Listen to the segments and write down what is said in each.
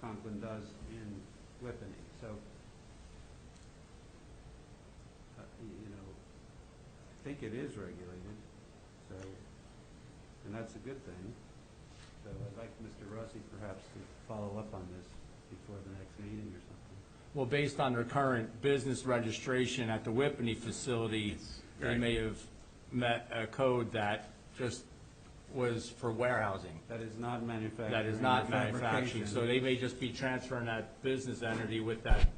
Conklin does in Whippany, so. uh, y- You know, I think it is regulated, so, and that's a good thing. So I'd like Mr. Rossi perhaps to follow up on this before the next meeting or something. Well, based on their current business registration at the Whippany facility, they Right. may have met a code that just was for warehousing. That is not manufacturing. That is not or manufacturing, so fabrication. they may just be transferring that business entity with that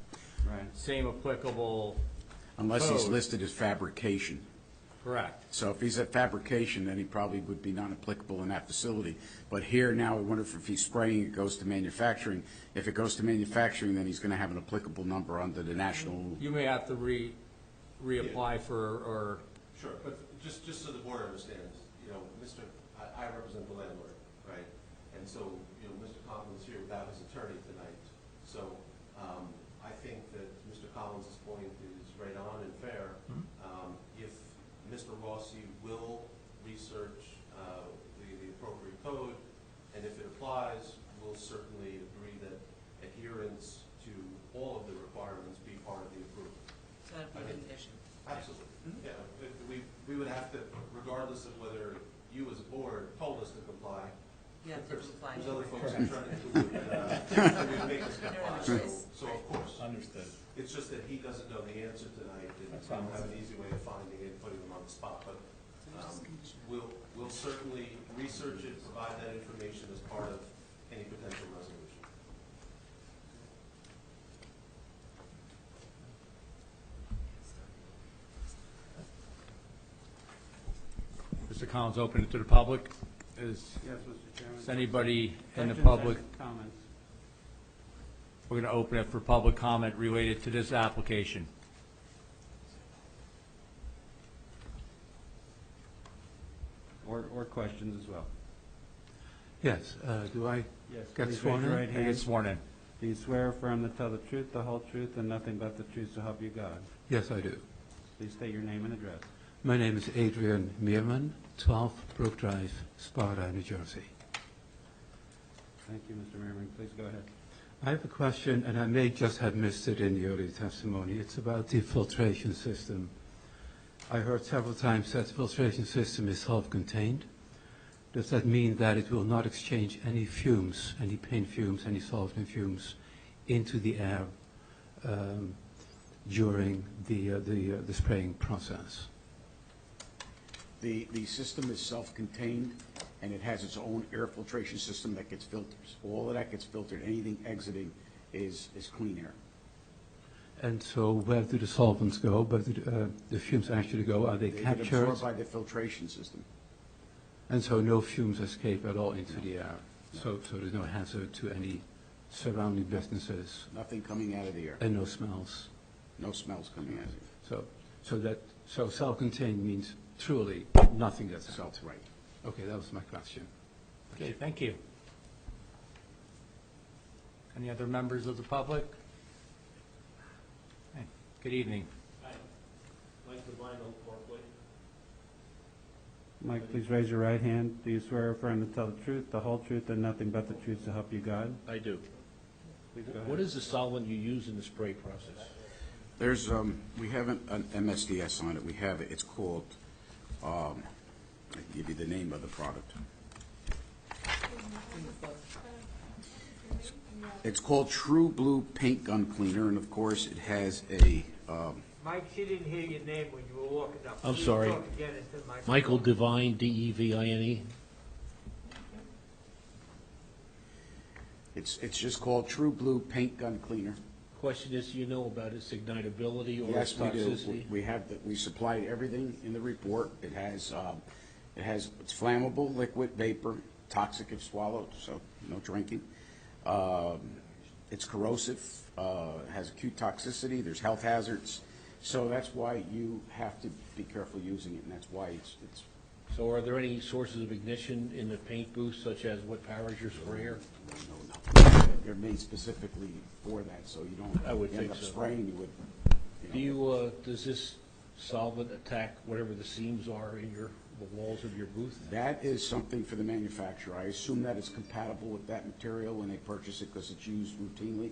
Right. same applicable, Unless he's Code. listed as fabrication. correct. So if he's at fabrication, then he probably would be non-applicable in that facility. But here now, I wonder if he's spraying, it goes to manufacturing. If it goes to manufacturing, then he's going to have an applicable number under the national. You may have to re, reapply for, or, Sure, but just, just so the board understands, you know, Mr., I, I represent the landlord, right? And so, you know, Mr. Collins here without his attorney tonight, so, um, I think that Mr. Collins' point is right on and fair. Um, if Mr. Rossi will research, uh, the, the appropriate code, and if it applies, we'll certainly agree that adherence to all of the requirements be part of the approval. So that'd be a condition. Absolutely, Mm-hmm. yeah, but we, we would have to, regardless of whether you as a board told us to comply. You have to there's- comply. There's other folks who try to, do it, uh, who would make us comply, so, so of course. Understood. It's just that he doesn't know the answer tonight, and That's we don't fine. have an easy way of finding it, and putting him on the spot, but, So it's um, just a condition. we'll, we'll certainly research it, provide that information as part of any potential resolution. Mr. Collins, open it to the public. Is, Yes, Mr. Chairman. is anybody in the Questions, public? Comments. We're going to open it for public comment related to this application. Or, or questions as well. Yes, uh, do I? Yes, Got please sworn raise your in? right I get hand. sworn in. Do you swear or affirm to tell the truth, the whole truth, and nothing but the truth to help you God? Yes, I do. Please state your name and address. My name is Adrian Meerman, 12 Brook Drive, Sparta, New Jersey. Thank you, Mr. Merriman. Please go ahead. I have a question, and I may just have missed it in the early testimony. It's about the filtration system. I heard several times that the filtration system is self-contained. Does that mean that it will not exchange any fumes, any paint fumes, any solvent fumes into the air um, during the uh, the uh, the spraying process? The, the system is self-contained, and it has its own air filtration system that gets filters. All of that gets filtered. Anything exiting is, is clean air. And so where do the solvents go? Where do the, uh, the fumes actually go? Are they They get captured? absorbed by the filtration system. And so no fumes escape at all into the air? So, so there's no hazard to any surrounding businesses Nothing coming out of the air. and no smells? No smells coming out of it. So, so that, so self-contained means truly nothing that's So, out? right. Okay, that was my question. Okay, thank you. Any other members of the public? Hey, Good evening. Mike, please raise your right hand. Do you swear or affirm to tell the truth, the whole truth, and nothing but the truth to help you God? I do. Please go What ahead. is the solvent you use in the spray process? There's, um, we haven't, an MSDS on it, we have, it. it's called, um, I can give you the name of the product. It's called True Blue Paint Gun Cleaner, and of course, it has a, um, Mike, she didn't hear your name when you were walking up. I'm Please sorry. talk again into the microphone. Michael Devine, D-E-V-I-N-E? it's, it's just called True Blue Paint Gun Cleaner. Question is, do you know about its ignitability or its Yes, we do. toxicity? We have, the- we supplied everything in the report. It has, um, it has, it's flammable, liquid, vapor, toxic if swallowed, so no drinking. Um, It's corrosive, uh, has acute toxicity, there's health hazards. So that's why you have to be careful using it, and that's why it's, it's, So are there any sources of ignition in the paint booth, such as what powers your sprayer? no, no. They're made specifically for that, so you don't I would end think up so. spraying you with. Do you, uh, does this solvent attack whatever the seams are in your the walls of your booth? That is something for the manufacturer. I assume that it's compatible with that material when they purchase it because it's used routinely.